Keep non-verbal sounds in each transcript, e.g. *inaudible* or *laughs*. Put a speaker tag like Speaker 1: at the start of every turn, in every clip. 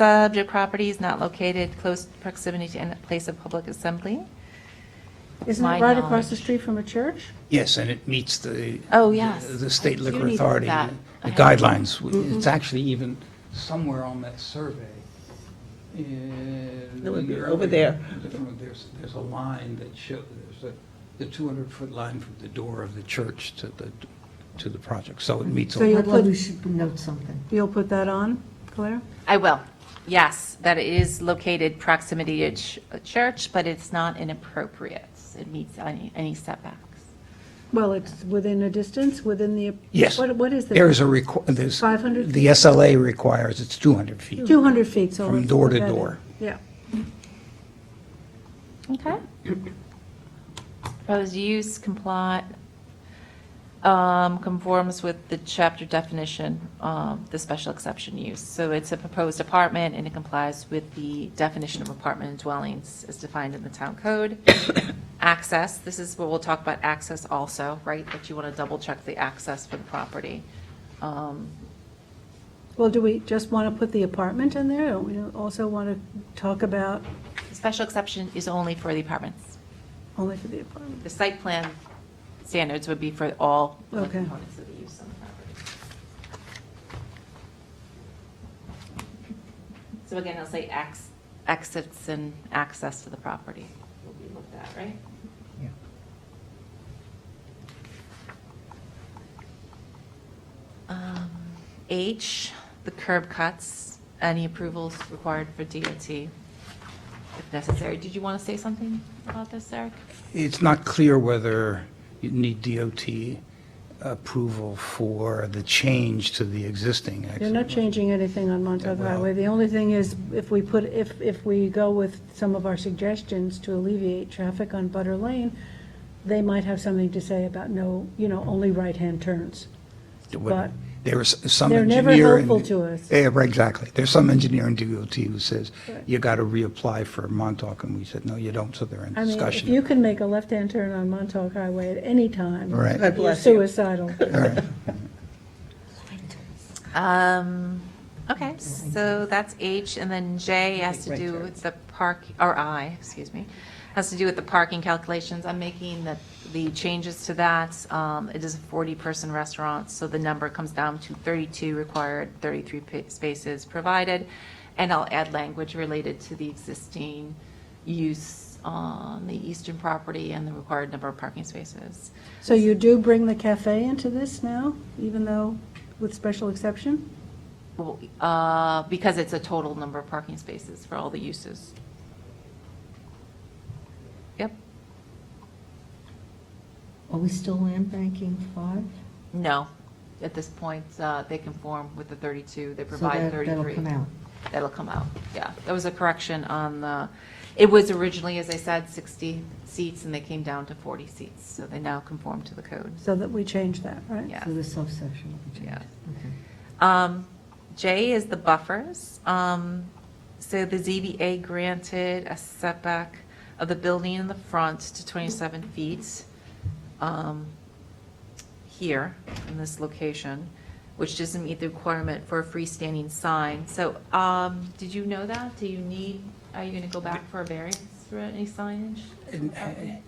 Speaker 1: Subject property is not located close proximity to any place of public assembly.
Speaker 2: Isn't
Speaker 1: My
Speaker 2: it right across the
Speaker 1: knowledge.
Speaker 2: street from a church?
Speaker 3: Yes, and it meets the.
Speaker 1: Oh, yes.
Speaker 3: The state
Speaker 1: I do
Speaker 3: liquor
Speaker 1: need
Speaker 3: authority
Speaker 1: that. Mm-hmm. I have-
Speaker 3: guidelines. It's actually even somewhere on that survey.
Speaker 4: It would be over there.
Speaker 3: There's, there's a line that show, there's a, the 200-foot line from the door of the church to the, to the project. So it meets,
Speaker 2: So
Speaker 3: all-
Speaker 2: you-
Speaker 5: I'd love we should note something.
Speaker 2: You'll put that on, Claire?
Speaker 1: I will. Yes, that it is located proximity to ch- a church, but it's not inappropriate. It meets any any setbacks.
Speaker 2: Well, it's within a distance, within the.
Speaker 3: yes.
Speaker 2: What, what is the?
Speaker 3: There is a, requ- there's.
Speaker 2: 500
Speaker 3: The SLA requires it's 200 feet.
Speaker 2: 200 feet, so.
Speaker 3: From
Speaker 2: let's
Speaker 3: door
Speaker 2: put
Speaker 3: to
Speaker 2: that in.
Speaker 3: door.
Speaker 2: Yeah.
Speaker 1: Okay. Proposed use comply, um, conforms with the chapter definition, um, the special exception use. So it's a proposed apartment and it complies with the definition of apartment and dwellings as defined in the town code. *coughs* Access, this is what we'll talk about access also, right? That you want to double check the access for the property. Um,
Speaker 2: Well, do we just want to put the apartment in there? Don't we also want to talk about
Speaker 1: the Special exception is only for the apartments.
Speaker 2: only for the apartment?
Speaker 1: The site plan standards would be for all of the
Speaker 2: Okay.
Speaker 1: components of the use on the property. So again, I'll say ex- exits and access to the property will be looked at, right? Um, H, the curb cuts, any approvals required for DOT if necessary. Did you want to say something about this, Eric?
Speaker 3: It's not clear whether you need DOT approval for the change to the existing exit.
Speaker 2: You're not changing anything on Montauk
Speaker 3: Yeah, well-
Speaker 2: Highway. The only thing is, if we put, if, if we go with some of our suggestions to alleviate traffic on Butter Lane, they might have something to say about no, you know, only right-hand turns. but
Speaker 3: There is some
Speaker 2: they're never
Speaker 3: engineer. in-
Speaker 2: helpful to us.
Speaker 3: Yeah, right, exactly. There's some engineer in DOT who says,
Speaker 2: Right.
Speaker 3: you got to reapply for Montauk, and we said, no, you don't, so they're in
Speaker 2: I mean, if you
Speaker 3: discussion.
Speaker 2: can make a left-hand turn on Montauk Highway at any time.
Speaker 3: Right. God
Speaker 2: You're
Speaker 4: bless you.
Speaker 2: suicidal.
Speaker 3: *laughs* All right.
Speaker 1: Um, okay, so that's H, and then J has to do with the park, or I, excuse me, has to do with the parking calculations. I'm making the, the changes to that. Um, it is a 40-person restaurant, so the number comes down to 32 required, 33 pa- spaces provided. And I'll add language related to the existing use on the eastern property and the required number of parking spaces.
Speaker 2: *laughs* So you do bring the cafe into this now, even though with special exception?
Speaker 1: Well, uh, because it's a total number of parking spaces for all the uses. Yep,
Speaker 5: Are we still land banking five?
Speaker 1: no, at this point, uh, they conform with the 32, they provide
Speaker 5: that-
Speaker 1: 33.
Speaker 5: that'll come out.
Speaker 1: That'll come out, yeah. That was a correction on the, it was originally, as I said, 60 seats, and they came down to 40 seats, so they now conform to the code.
Speaker 2: So that we change that, right?
Speaker 1: Yeah.
Speaker 5: So the subsection will be changed.
Speaker 1: Yeah.
Speaker 5: Okay.
Speaker 1: Um, J is the buffers. Um, So the ZBA granted a setback of the building in the front to 27 feet um, here, in this location, which doesn't meet the requirement for a freestanding sign. So um, did you know that? Do you need, are you going to go back for a variance for any signage?
Speaker 3: And, uh,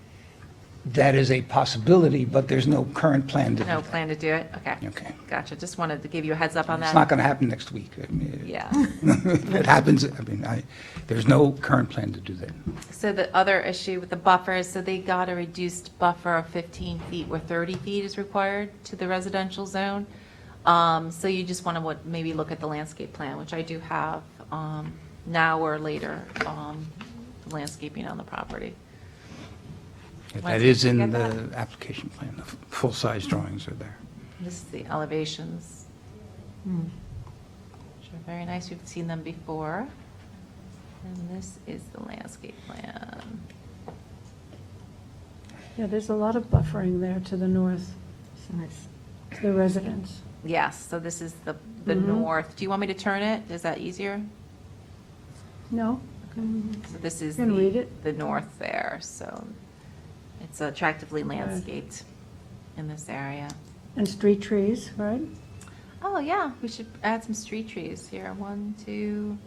Speaker 3: That is a possibility, but there's no current plan to do
Speaker 1: No
Speaker 3: that.
Speaker 1: plan to do it? Okay.
Speaker 3: Okay.
Speaker 1: Gotcha. Just wanted to give you a heads up on that.
Speaker 3: It's not going to happen next week. I mean, it- *laughs*
Speaker 1: Yeah.
Speaker 3: It happens, I mean, I, there's no current plan to do that.
Speaker 1: So the other issue with the buffers, so they got a reduced buffer of 15 feet where 30 feet is required to the residential zone. Um, So you just want to maybe look at the landscape plan, which I do have um, now or later, um, landscaping on the property.
Speaker 3: That is in
Speaker 1: Get
Speaker 3: the
Speaker 1: that?
Speaker 3: application plan, the f- full-size drawings are there.
Speaker 1: This is the elevations. Which are very nice, we've seen them before. And this is the landscape plan.
Speaker 2: Yeah, there's a lot of buffering there to the north,
Speaker 5: So that's-
Speaker 2: to the residents.
Speaker 1: Yes, so this is the, the
Speaker 2: Mhm.
Speaker 1: north. Do you want me to turn it? Is that easier?
Speaker 2: No?
Speaker 1: So this is
Speaker 2: Can read
Speaker 1: the,
Speaker 2: it.
Speaker 1: the north there, so it's attractively landscaped in this area.
Speaker 2: And street trees, right?
Speaker 1: Oh, yeah, we should add some street trees here. One, two,